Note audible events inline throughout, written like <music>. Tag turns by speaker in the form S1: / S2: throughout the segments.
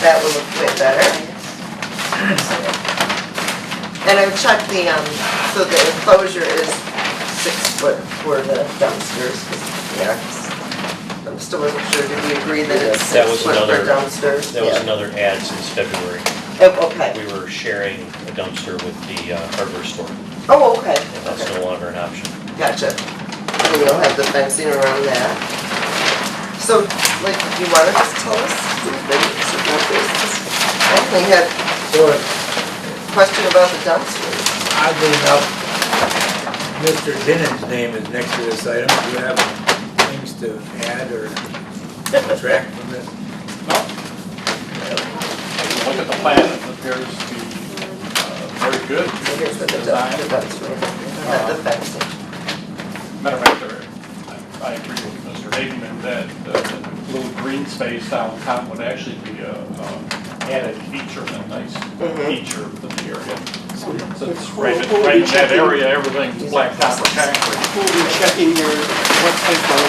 S1: That will look way better. And I've checked the, um, so the enclosure is six foot for the dumpsters, 'cause, yeah. I'm still wasn't sure, did we agree that it's
S2: That
S1: six
S2: was
S1: foot for
S2: another-
S1: dumpsters?
S2: That was
S1: Yeah.
S2: another ad since February.
S1: Oh, Okay,
S2: We were sharing a dumpster with the uh, hardware store, and
S1: oh, okay,
S2: that's
S1: okay,
S2: no longer an option.
S1: gotcha. And we'll have the fencing around that. So, like, you wanna just tell us something about this? I only had
S3: Sure,
S1: a question about the dumpsters.
S3: oddly enough, Mr. Dinnan's name is next to this item. Do you have things to add or subtract from this?
S4: If you Look at the plan, it appears to be uh, very good.
S1: I guess that the Uh-huh. dump- the
S4: Design.
S1: dumpster, not the fencing.
S4: Matter of fact, there- I I agree with Mr. Hageman that uh, the little green space downtown would actually be a uh, added feature, a nice
S1: Mhm.
S4: feature of the area. Since right in right in that area, everything's blacktop or concrete.
S5: We'll be checking your, what type of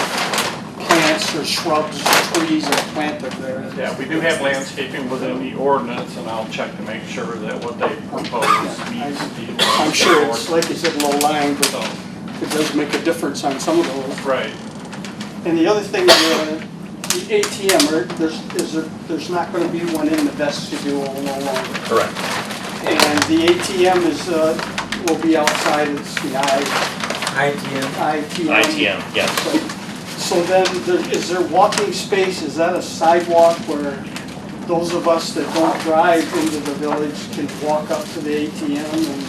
S5: plants or shrubs or trees are planted there.
S4: Yeah, we do have landscaping within the ordinance, and I'll check to make sure that what they propose meets the.
S5: I'm sure it's, like you said, low lying, but
S4: So,
S5: it does make a difference on some of those.
S4: Right.
S5: And the other thing, uh, the ATM, or there's, is there, there's not gonna be one in the vestibule no longer.
S2: Correct.
S5: And the ATM is, uh, will be outside, it's the I,
S3: ITM,
S5: ITM.
S2: ITM, yes.
S5: So then, there- is there walking space, is that a sidewalk where those of us that don't drive into the village can walk up to the ATM and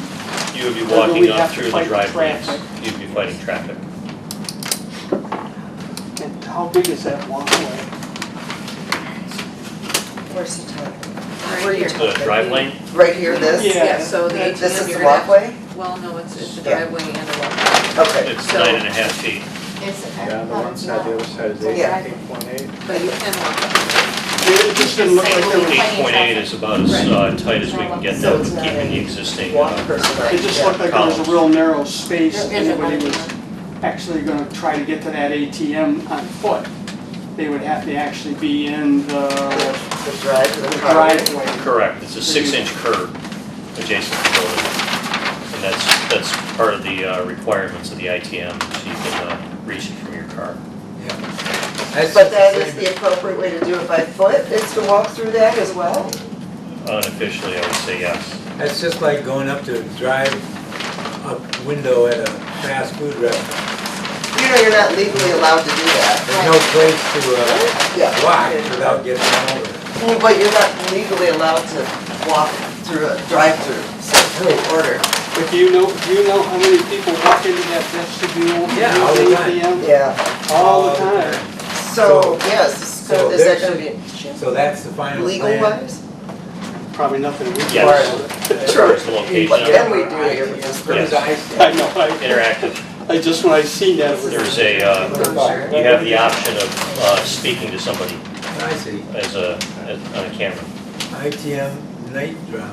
S2: You would be
S5: Or do we
S2: walking up
S5: have to
S2: through the
S5: fight the
S2: driveways.
S5: traffic?
S2: You'd be fighting traffic.
S5: and how big is that walkway?
S6: Where's the time?
S1: Where
S6: Right
S1: you
S6: here.
S2: The drive lane,
S1: Right here, this?
S5: Yeah.
S6: So the ATM.
S1: This is
S6: you're
S1: the
S6: gonna have-
S1: walkway?
S6: Well, no, it's, it's a
S1: Yeah.
S6: driveway and a walkway.
S1: Okay.
S2: it's
S6: So-
S2: nine and a half feet.
S6: It's,
S7: Yeah, on the one side, the other side is
S1: Yeah.
S7: eight, eight point eight.
S6: But you can walk.
S5: It just didn't look like there was,
S2: Eight point eight is about as uh, tight as we can get
S1: So
S2: them,
S1: it's not
S2: keeping the
S1: a
S2: existing.
S1: One
S2: uh,
S1: person.
S5: it just looked like there was a real narrow space
S6: There
S5: and
S6: is a
S5: anybody was
S6: walkway.
S5: actually gonna try to get to that ATM on foot. They would have to actually be in the
S1: The drive to
S5: the
S1: the car.
S5: driveway.
S2: Correct, it's a six-inch
S5: Mm-hmm.
S2: curb adjacent to the building. And that's, that's part of the uh, requirements of the ITM, so you can uh, reach it from your car.
S3: yeah.
S1: But that is the appropriate way to do it by foot, is to walk through that as well?
S2: Unofficially, I would say yes.
S3: That's just like going up to drive up window at a fast food restaurant.
S1: You know, you're not legally allowed to do that.
S3: There's no place to uh,
S1: Yeah.
S3: walk without getting run over.
S1: Well, But you're not legally allowed to walk through a drive-through, so it's really order.
S5: But do you know, do you know how many people walk into that vestibule?
S3: Yeah, all the
S5: use
S3: time.
S5: ATM?
S1: Yeah,
S5: All the time.
S1: so,
S3: So-
S1: yes, so
S3: so
S1: is that
S3: there's-
S1: gonna be
S3: So that's the final plan.
S1: legal wise?
S5: Probably nothing we can.
S2: Yes.
S1: Sure.
S2: It's the location
S1: But
S2: of
S1: then we do it here.
S3: As I said.
S5: <laughs> I know, I,
S2: interactive.
S5: I just, when I seen that, it
S2: There's
S5: was,
S2: a, uh,
S1: Sure.
S2: you have the option of uh, speaking to somebody
S3: I see.
S2: as a, as- on a camera.
S3: ITM night drop.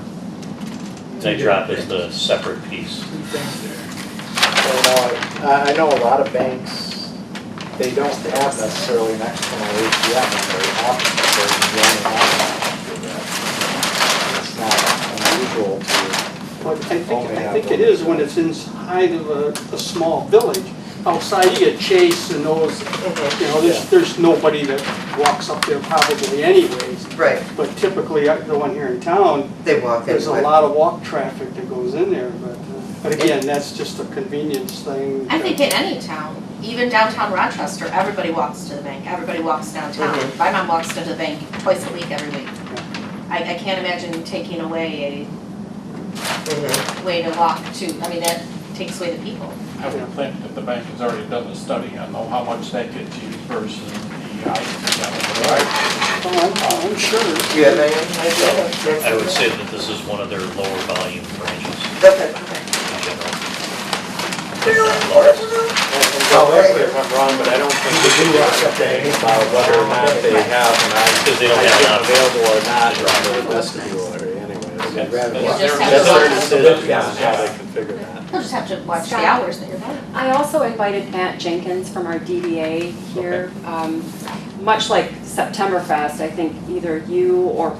S2: They drop is the separate piece.
S3: Two things
S7: So now, I, I know a lot of banks, they don't have necessarily an external ATM in their office, they're running It's not unusual to,
S5: I think, I think it is when it's inside of a, a small village. Outside, you get Chase and those, you know,
S7: Yeah.
S5: there's, there's nobody that walks up there probably anyways.
S1: Right,
S5: But typically, uh, the one here in town,
S1: they walk in.
S5: there's a
S1: but-
S5: lot of walk traffic that goes in there, but, uh, but again, that's just a convenience thing.
S8: I think in any town, even downtown Rochester, everybody walks to the bank, everybody walks downtown.
S1: Mhm.
S8: My mom walks to the bank twice a week, every week. I, I can't imagine taking away
S1: Mhm.
S8: a way to walk to, I mean, that takes away the people.
S4: I would think that the bank has already done a study on know how much that gets used versus the ITM.
S5: Oh, I'm, I'm sure.
S1: Do you have any idea?
S2: I would say that this is one of their lower volume branches
S1: Okay.
S2: in general.
S7: well, if I'm wrong, but I don't think they do something about whether or not they have an
S2: Because they don't have
S7: ITM
S2: an option.
S7: available or not in their vestibule area anyways.
S4: That's
S8: just have
S4: their-
S7: That's their
S4: that's their
S7: decision
S4: decision.
S7: on how they configure that.
S8: You'll just have to watch the
S9: Stop.
S8: hours that you're going.
S9: I also invited Matt Jenkins from our DDA here. Um, Much like Septemberfest, I think either you or